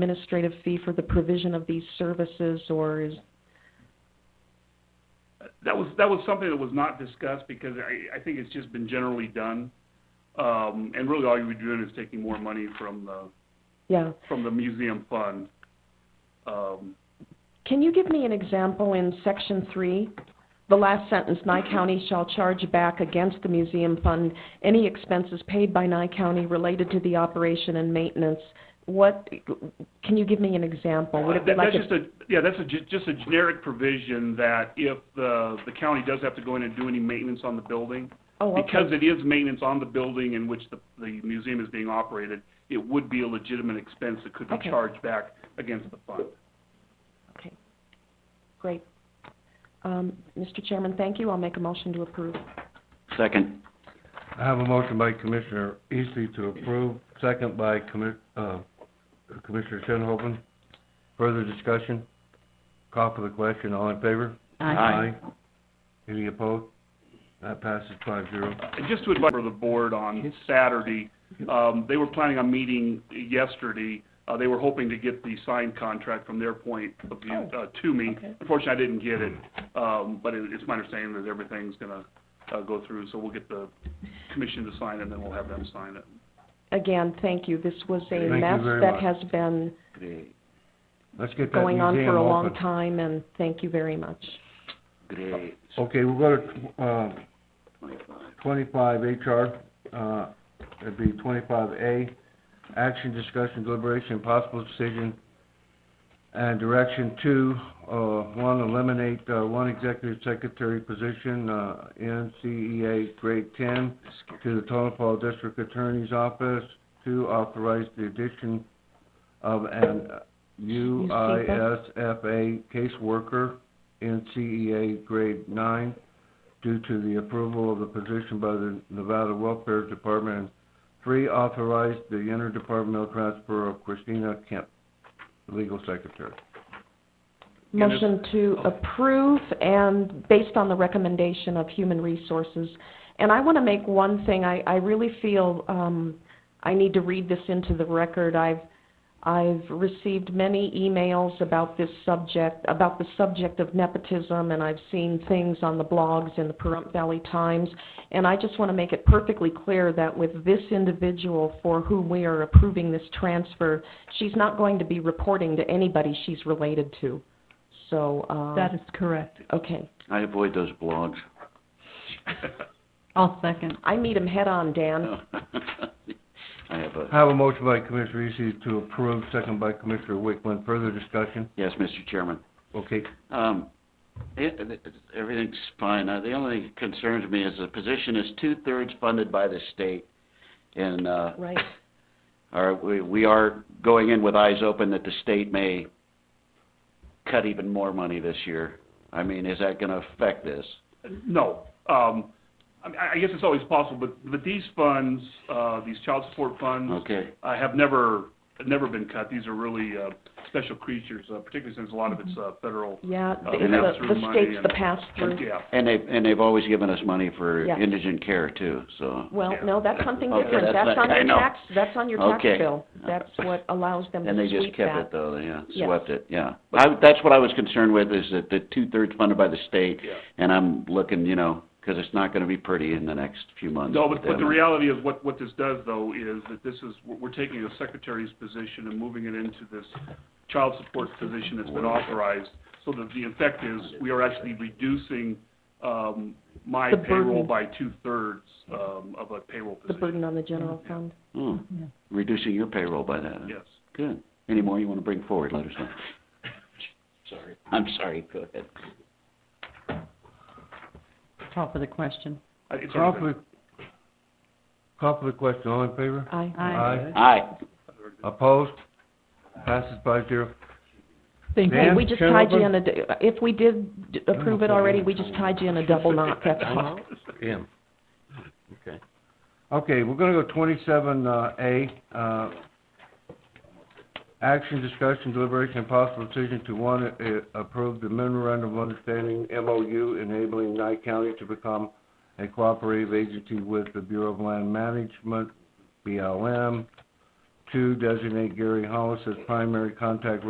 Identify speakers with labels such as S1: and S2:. S1: administrative fee for the provision of these services, or is,
S2: That was, that was something that was not discussed because I, I think it's just been generally done. Um, and really all you were doing is taking more money from the,
S1: yeah.
S2: from the museum fund. Um,
S1: Can you give me an example in section three? The last sentence, Nye County shall charge back against the museum fund any expenses paid by Nye County related to the operation and maintenance. What, can you give me an example? Would it be
S2: That-
S1: like,
S2: That's
S1: a-
S2: just a, yeah, that's a, ju- just a generic provision that if the, the county does have to go in and do any maintenance on the building,
S1: oh,
S2: because
S1: okay,
S2: it is maintenance on the building in which the, the museum is being operated, it would be a legitimate expense that could be
S1: Okay.
S2: charged back against the fund.
S1: okay. Great. Um, Mr. Chairman, thank you. I'll make a motion to approve.
S3: Second.
S4: I have a motion by Commissioner Eastley to approve, second by Commi- uh, Commissioner Shinhopin. Further discussion? Call for the question, all in favor? Any opposed? That passes five zero.
S2: And just to advise for the board on Saturday, um, they were planning on meeting yesterday. Uh, they were hoping to get the signed contract from their point of view, uh, to me.
S1: okay.
S2: Unfortunately, I didn't get it, um, but it, it's my understanding that everything's gonna, uh, go through, so we'll get the commission to sign it, and then we'll have them sign it.
S1: Again, thank you. This was a
S4: Thank you
S1: mess
S4: very
S1: that
S4: much.
S1: has been
S3: Great,
S4: Let's get that
S1: going on
S4: museum
S1: for a long
S4: open.
S1: time, and thank you very much.
S3: great.
S4: Okay, we'll go to, uh,
S2: Twenty-five.
S4: twenty-five HR, uh, it'd be twenty-five A, action, discussion, deliberation, possible decision, and direction two, uh, one, eliminate, uh, one executive secretary position, uh, NCEA grade ten to the Tonopah District Attorney's Office, two, authorize the addition of an UISFA caseworker, NCEA grade nine, due to the approval of the position by the Nevada Welfare Department. and Three, authorize the interdepartmental transfer of Christina Kemp, legal secretary.
S2: Again,
S1: Motion to approve and based on the recommendation of Human Resources. And I want to make one thing, I, I really feel, um, I need to read this into the record. I've, I've received many emails about this subject, about the subject of nepotism, and I've seen things on the blogs in the Pahrump Valley Times. And I just want to make it perfectly clear that with this individual for whom we are approving this transfer, she's not going to be reporting to anybody she's related to. So, uh,
S5: That is correct.
S1: okay.
S3: I avoid those blogs.
S5: I'll second.
S1: I meet him head-on, Dan.
S3: I have
S4: I
S3: a,
S4: have a motion by Commissioner Eastly to approve, second by Commissioner Wickman. Further discussion?
S3: yes, Mr. Chairman.
S4: Okay,
S3: Um, it, it- it- everything's fine. Uh, the only thing concerns me is the position is two-thirds funded by the state. And, uh,
S1: Right.
S3: are, we, we are going in with eyes open that the state may cut even more money this year. I mean, is that gonna affect this?
S2: No. Um, I mean, I I guess it's always possible, but, but these funds, uh, these child support funds,
S3: Okay,
S2: uh, have never, never been cut. These are really, uh, special creatures, uh, particularly since a lot of it's, uh, federal.
S1: Yeah,
S2: Uh,
S1: the,
S2: and that's
S1: the- the
S2: through money
S1: state's the
S2: and-
S1: pass-through.
S2: Yeah.
S3: and they, and they've always given us money for
S1: Yeah.
S3: indigent care too, so.
S1: Well,
S2: Yeah.
S1: no, that's something
S3: Okay,
S1: different.
S3: that's
S1: That's on
S3: not-
S1: your
S3: I know.
S1: tax, that's on your tax
S3: Okay.
S1: bill. That's what allows them to
S3: And they just
S1: sweep that.
S3: kept it though, yeah,
S1: Yes.
S3: swept it, yeah. But I, that's what I was concerned with, is that the two-thirds funded by the state,
S2: Yeah.
S3: and I'm looking, you know, because it's not gonna be pretty in the next few months.
S2: No, but, but the
S3: Um,
S2: reality is what, what this does though is that this is, we're we're taking a secretary's position and moving it into this child support position that's been authorized. So that the effect is we are actually reducing, um, my
S1: The
S2: payroll
S1: burden.
S2: by two-thirds, um, of a payroll
S1: The
S2: position.
S1: burden on the general fund.
S3: hmm, Reducing your payroll by that, huh?
S2: Yes.
S3: Good. Any more you want to bring forward, let us know. Sorry. I'm sorry, go ahead.
S5: Call for the question.
S2: I- It's
S4: call
S2: sort of
S4: for, call for the question. All in favor?
S1: Aye.
S5: Aye.
S3: Aye.
S4: Opposed? Passes five zero.
S5: Thank
S4: Dan?
S1: Hey, we just tied you
S4: Chernobyl?
S1: in a, d- if we did d- approve it already, we just tied you in a double knot, that's all.
S4: Yeah. Okay. Okay, we're gonna go twenty-seven, uh, A, uh, action, discussion, deliberation, and possible decision to, one, uh, approve the memorandum of understanding, MOU, enabling Nye County to become a cooperative agency with the Bureau of Land Management, BLM. two, designate Gary Hollis as primary contact